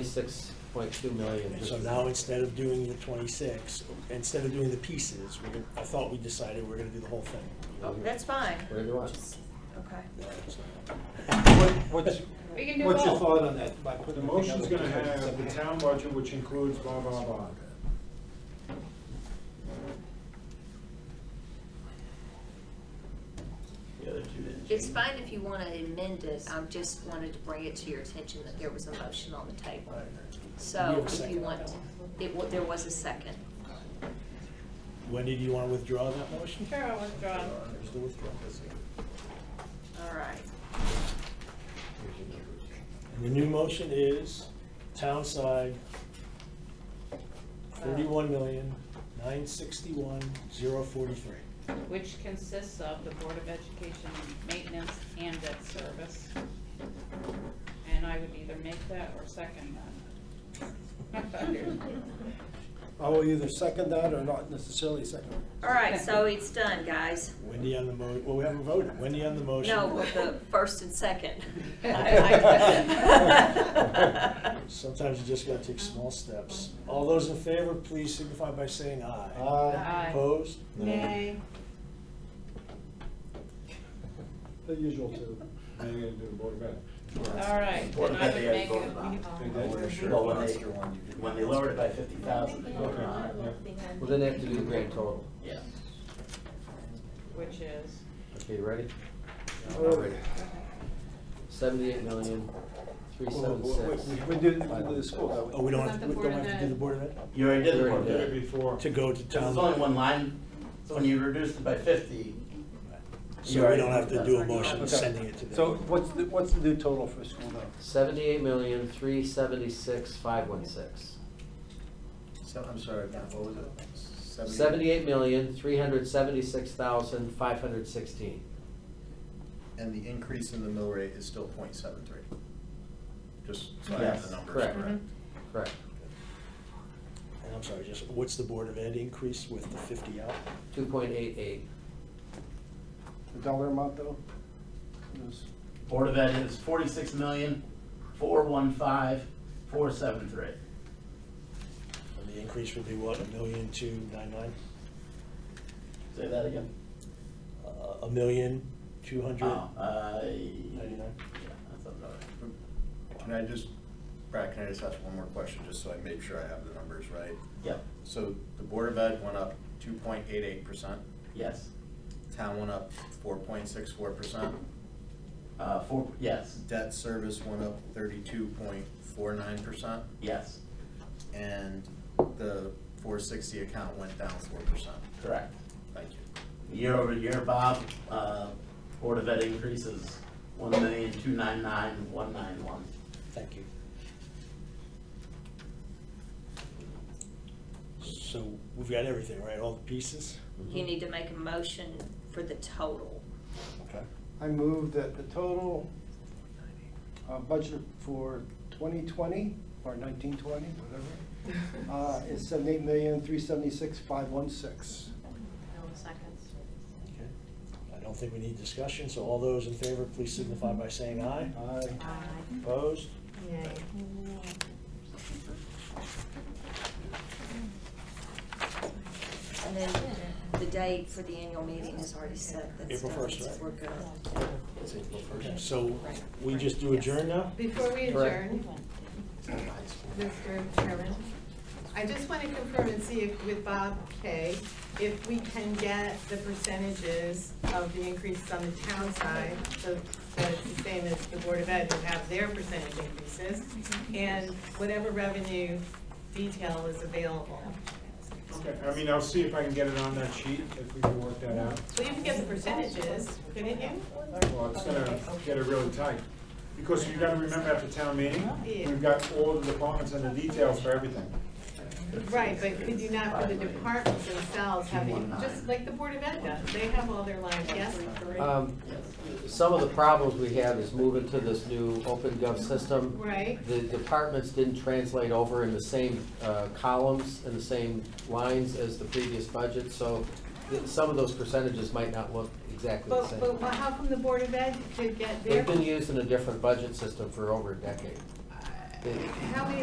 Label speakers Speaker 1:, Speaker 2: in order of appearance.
Speaker 1: twenty-six point two million.
Speaker 2: So now, instead of doing the twenty-six, instead of doing the pieces, we're gonna, I thought we decided we're gonna do the whole thing.
Speaker 1: Oh,
Speaker 3: That's fine.
Speaker 1: Whatever you want.
Speaker 3: Just- Okay.
Speaker 2: No, it's not.
Speaker 4: What- What's,
Speaker 3: We can do
Speaker 4: what's your
Speaker 3: both.
Speaker 4: thought on that? by putting
Speaker 5: The
Speaker 4: together
Speaker 5: motion's gonna
Speaker 4: two budgets
Speaker 5: have
Speaker 4: separate?
Speaker 5: the town budget, which includes blah, blah, blah.
Speaker 6: The other two didn't
Speaker 7: It's
Speaker 6: change.
Speaker 7: fine if you want to amend it, I just wanted to bring it to your attention that there was a motion on the table.
Speaker 2: We have
Speaker 7: So
Speaker 2: a
Speaker 7: if you
Speaker 2: second on
Speaker 7: want,
Speaker 2: that
Speaker 7: it, wa- there was a second.
Speaker 2: Wendy, do you wanna withdraw that motion?
Speaker 3: Sure, I'll withdraw.
Speaker 2: There's the withdrawal.
Speaker 7: All right.
Speaker 2: And the new motion is town side thirty-one million, nine sixty-one, zero forty-three.
Speaker 8: which consists of the Board of Education maintenance and debt service. And I would either make that or second that.
Speaker 4: I will either second that or not necessarily second it.
Speaker 7: All right, so it's done, guys.
Speaker 2: Wendy on the mo, well, we haven't voted. Wendy on the motion.
Speaker 7: No, with the first and second.
Speaker 8: I-
Speaker 2: Sometimes you just gotta take small steps. All those in favor, please signify by saying aye.
Speaker 4: Aye.
Speaker 8: Aye.
Speaker 2: Opposed?
Speaker 3: Nay.
Speaker 4: The usual two.
Speaker 5: Now you're gonna do the board of ed.
Speaker 8: All right,
Speaker 6: Well,
Speaker 8: then I
Speaker 6: they
Speaker 8: would
Speaker 6: had
Speaker 8: make
Speaker 6: voted
Speaker 8: it-
Speaker 6: on it.
Speaker 5: They
Speaker 6: I
Speaker 5: did?
Speaker 6: wasn't sure when they, when they lowered it by fifty thousand, they voted on it.
Speaker 1: Well, then they have to do the grand total.
Speaker 6: Yeah.
Speaker 8: which is,
Speaker 1: Okay, you ready?
Speaker 4: All right.
Speaker 1: Seventy-eight million, three
Speaker 4: Well,
Speaker 1: seven
Speaker 4: we-
Speaker 1: six.
Speaker 4: We we do, we do the school, don't we?
Speaker 2: Oh, we don't
Speaker 3: Is
Speaker 2: have,
Speaker 3: that
Speaker 2: to-
Speaker 3: the
Speaker 2: we
Speaker 3: Board
Speaker 2: don't
Speaker 3: of
Speaker 2: have to do
Speaker 3: Ed?
Speaker 2: the Board of Ed?
Speaker 6: You already did the
Speaker 1: You
Speaker 6: one,
Speaker 1: already
Speaker 5: Did
Speaker 1: did
Speaker 5: it
Speaker 6: did
Speaker 5: before.
Speaker 2: To go to
Speaker 6: There's
Speaker 2: town.
Speaker 6: only one line, so when you reduced it by fifty. you
Speaker 2: So we
Speaker 6: already
Speaker 2: don't have to
Speaker 6: did
Speaker 2: do a
Speaker 6: that.
Speaker 2: motion
Speaker 4: Okay.
Speaker 2: sending it to them.
Speaker 4: So what's the, what's the new total for school though?
Speaker 1: Seventy-eight million, three seventy-six, five one six.
Speaker 6: So, I'm sorry, now, what was it?
Speaker 1: Seventy-eight million, three hundred seventy-six thousand, five hundred sixteen.
Speaker 9: And the increase in the mill rate is still 0.73. Just so I have
Speaker 6: Yes,
Speaker 9: the numbers
Speaker 1: correct.
Speaker 9: correct.
Speaker 1: Correct.
Speaker 2: And I'm sorry, just, what's the Board of Ed increase with the fifty out?
Speaker 1: Two point eight eight.
Speaker 4: The dollar amount though? Is-
Speaker 6: Board of Ed is forty-six million, four one five, four seven three.
Speaker 2: And the increase would be what, a million two nine nine?
Speaker 6: Say that again.
Speaker 2: Uh, A million two hundred
Speaker 6: Oh, uh, yeah,
Speaker 2: ninety-nine?
Speaker 6: that sounds all right.
Speaker 9: Can I just, Brad, can I just ask one more question, just so I make sure I have the numbers right?
Speaker 6: Yep,
Speaker 9: So the Board of Ed went up 2.88%,
Speaker 6: yes,
Speaker 9: town went up 4.64%,
Speaker 6: uh, four, yes,
Speaker 9: debt service went up 32.49%,
Speaker 6: yes,
Speaker 9: and the 460 account went down 4%.
Speaker 6: correct.
Speaker 9: Thank you.
Speaker 6: Year over year, Bob, uh, Board of Ed increases one million, two nine nine, one nine one.
Speaker 2: Thank you. So we've got everything, right, all the pieces?
Speaker 7: You need to make a motion for the total.
Speaker 6: Mm-hmm.
Speaker 2: Okay.
Speaker 4: I move that the total uh, budget for 2020, or 1920, whatever, uh, is 78,376,516.
Speaker 2: I don't think we need discussion, so all those in favor, please signify by saying aye.
Speaker 4: Aye.
Speaker 2: Opposed?
Speaker 7: And then the date for the annual meeting is already set. That's
Speaker 2: April
Speaker 7: done.
Speaker 2: 1st, right?
Speaker 7: We're good.
Speaker 2: Okay, So we just do adjourn now?
Speaker 3: Before we
Speaker 1: Correct.
Speaker 3: adjourn, Mr. Chairman, I just want to confirm and see if, with Bob Kay, if we can get the percentages of the increases on the town side, so that it's the same as the Board of Ed would have their percentage increases, and whatever revenue detail is available.
Speaker 5: Okay, I mean, I'll see if I can get it on that sheet, if we can work that out.
Speaker 3: So you can get the percentages, couldn't you?
Speaker 5: Well, it's gonna get it really tight, because you gotta remember at the town meeting,
Speaker 3: Yeah.
Speaker 5: we've got all the departments and the details for everything.
Speaker 3: Right, but could you not, for the departments themselves, having,
Speaker 6: 219.
Speaker 3: just like the Board of Ed does, they have all their lines, yes?
Speaker 1: Um, some of the problems we have is moving to this new open gov system.
Speaker 3: Right?
Speaker 1: The departments didn't translate over in the same uh, columns and the same lines as the previous budget, so th- some of those percentages might not look exactly the
Speaker 3: But,
Speaker 1: same.
Speaker 3: but wha- how come the Board of Ed could get their?
Speaker 1: They've been used in a different budget system for over a decade.
Speaker 6: I-
Speaker 10: They-
Speaker 1: How many